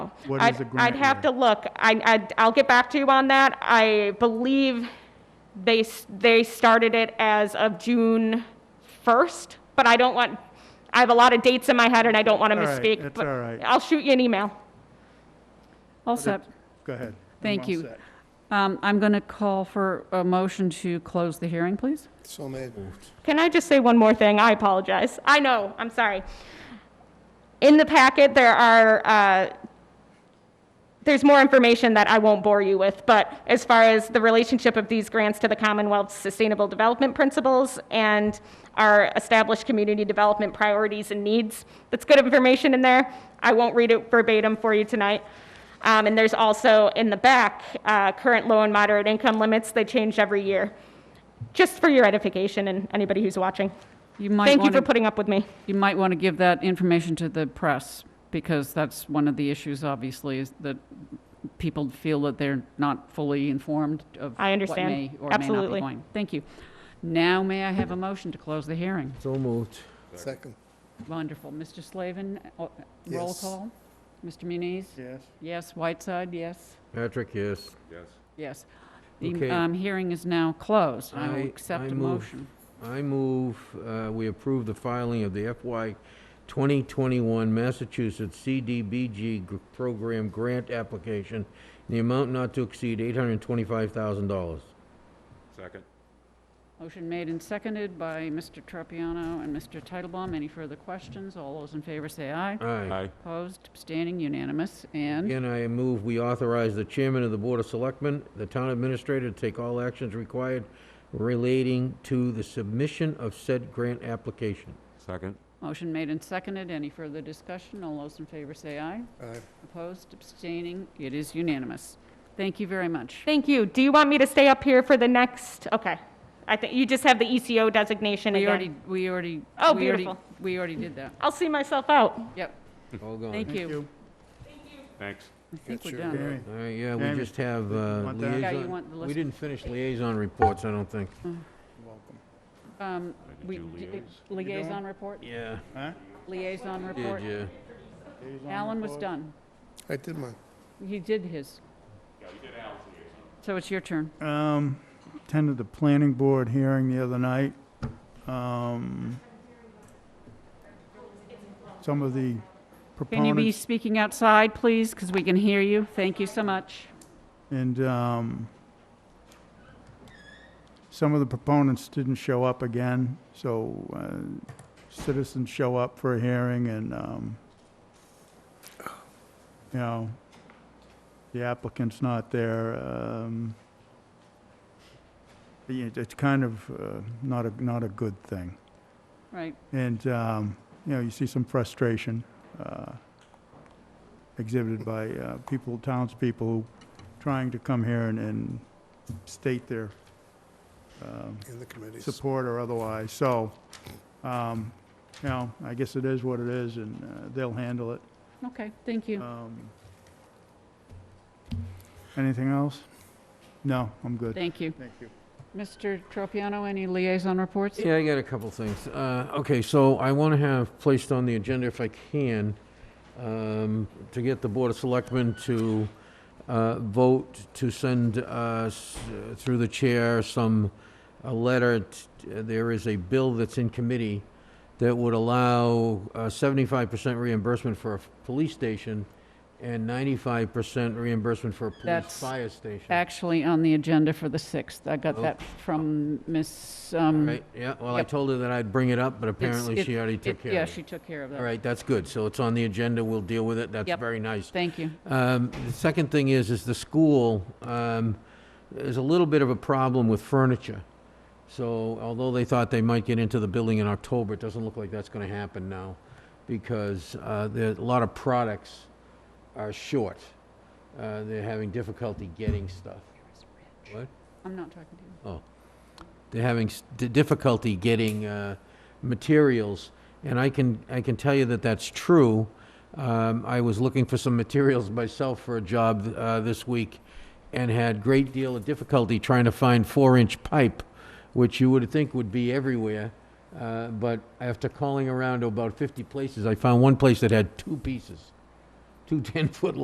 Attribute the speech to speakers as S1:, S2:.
S1: What
S2: I'd-
S1: is the grant?
S2: I'd have
S1: writer?
S2: to look. I, I, I'll get back to you on that. I believe they, s- they started it as of June 1st, but I don't want, I have a lot of dates in my head and I don't want to
S1: All right,
S2: misspeak.
S1: it's
S2: but
S1: all right.
S2: I'll shoot you an email.
S3: All set.
S1: Go ahead.
S3: Thank
S1: I'm all
S3: you.
S1: set.
S3: Um, I'm going to call for a motion to close the hearing, please.
S4: So made.
S2: Can I just say one more thing? I apologize. I know, I'm sorry. In the packet, there are, uh, there's more information that I won't bore you with, but as far as the relationship of these grants to the Commonwealth's Sustainable Development Principles and our established community development priorities and needs, that's good information in there. I won't read it verbatim for you tonight. Um, And there's also, in the back, uh, current low and moderate income limits, they change every year just for your edification and anybody who's watching.
S3: You might
S2: Thank you
S3: want
S2: for
S3: to,
S2: putting up with me.
S3: you might want to give that information to the press, because that's one of the issues, obviously, is that people feel that they're not fully informed of
S2: I understand.
S3: what may or may not
S2: Absolutely.
S3: be going. Thank you. Now, may I have a motion to close the hearing?
S5: So moved.
S4: Second.
S3: Wonderful. Mr. Slavin, uh, roll
S4: Yes.
S3: call. Mr. Muniz?
S1: Yes.
S3: Yes. Whiteside, yes?
S5: Patrick, yes.
S3: Yes. The
S5: Okay.
S3: um, hearing is now closed. I
S5: I-
S3: will accept
S5: I
S3: a
S5: move.
S3: motion.
S5: I move uh, we approve the filing of the FY 2021 Massachusetts CDBG gr- Program Grant Application in the amount not to exceed $825,000.
S6: Second.
S3: Motion made and seconded by Mr. Tropiano and Mr. Titlebaum. Any further questions? All those in favor say aye.
S5: Aye.
S3: Opposed, abstaining, unanimous, and
S5: Again, I move we authorize the chairman of the Board of Selectmen, the town administrator, to take all actions required relating to the submission of said grant application.
S6: Second.
S3: motion made and seconded. Any further discussion? All those in favor say aye.
S4: Aye.
S3: Opposed, abstaining, it is unanimous. Thank you very much.
S2: Thank you. Do you want me to stay up here for the next? Okay. I think you just have the ECO designation
S3: We
S2: again.
S3: already, we already.
S2: Oh,
S3: we already-
S2: beautiful.
S3: We already did that.
S2: I'll see myself out.
S3: Yep,
S5: All gone.
S3: thank
S1: Thank
S3: you.
S1: you.
S6: Thanks.
S3: I think
S4: Got
S3: we're
S4: your
S3: done.
S1: Jamie,
S5: All right, yeah, we
S1: Jamie,
S5: just have uh,
S1: want that?
S5: liaison.
S3: Yeah, you want the
S5: We
S3: list.
S5: didn't finish liaison reports, I don't think.
S1: welcome.
S3: Um, we-
S6: do
S3: d-
S6: liaise.
S3: Liaison report,
S5: Yeah.
S1: Huh?
S3: liaison report.
S5: Did you?
S1: Liaison
S3: Alan was
S1: report?
S3: done.
S4: I did mine.
S3: He did his. So it's your turn.
S1: Um, attended the planning board hearing the other night. Um, some of the
S3: Can you be
S1: proponents
S3: speaking outside, please, because we can hear you? Thank you so much.
S1: and, um, some of the proponents didn't show up again, so, uh, citizens show up for a hearing and, um, you know, the applicant's not there, um, it- it's kind of, uh, not a, not a good thing.
S3: Right,
S1: And, um, you know, you see some frustration uh, exhibited by uh, people, townspeople who trying to come here and- and state their um,
S4: In the committees.
S1: support or otherwise. So, um, you know, I guess it is what it is, and uh, they'll handle it.
S3: okay, thank
S5: Uh,
S3: you.
S1: Um, Anything else? No, I'm good.
S3: Thank you.
S1: Thank you.
S3: Mr. Tropiano, any liaison reports?
S5: Yeah, I got a couple things. Uh, Okay, so I want to have placed on the agenda, if I can, um, to get the Board of Selectmen to uh, vote to send us, uh, through the chair, some, a letter. t- There is a bill that's in committee that would allow uh, 75% reimbursement for a f- police station and 95% reimbursement for a police
S3: That's
S5: fire station.
S3: Actually, on the agenda for the 6th. I got that from Ms. um,
S5: Right, yeah, well, I
S3: Yep.
S5: told her that I'd bring it up, but
S3: it's-
S5: apparently
S3: it-
S5: she already
S3: it-
S5: took care
S3: Yeah,
S5: of it.
S3: she took care of
S5: All
S3: that.
S5: right, that's good. So it's on the agenda, we'll deal with it. That's
S3: Yep.
S5: very nice.
S3: Thank you.
S5: Um, The second thing is, is the school, um, there's a little bit of a problem with furniture. So although they thought they might get into the building in October, it doesn't look like that's going to happen now because uh, there, a lot of products are short. Uh, They're having difficulty getting stuff. What?
S3: I'm not talking to you.
S5: They're having s- di- difficulty getting uh, materials, and I can, I can tell you that that's true. Um, I was looking for some materials myself for a job uh, this week, and had great deal of difficulty trying to find four-inch pipe, which you would think would be everywhere. Uh, But after calling around to about 50 places, I found one place that had two pieces, two 10-foot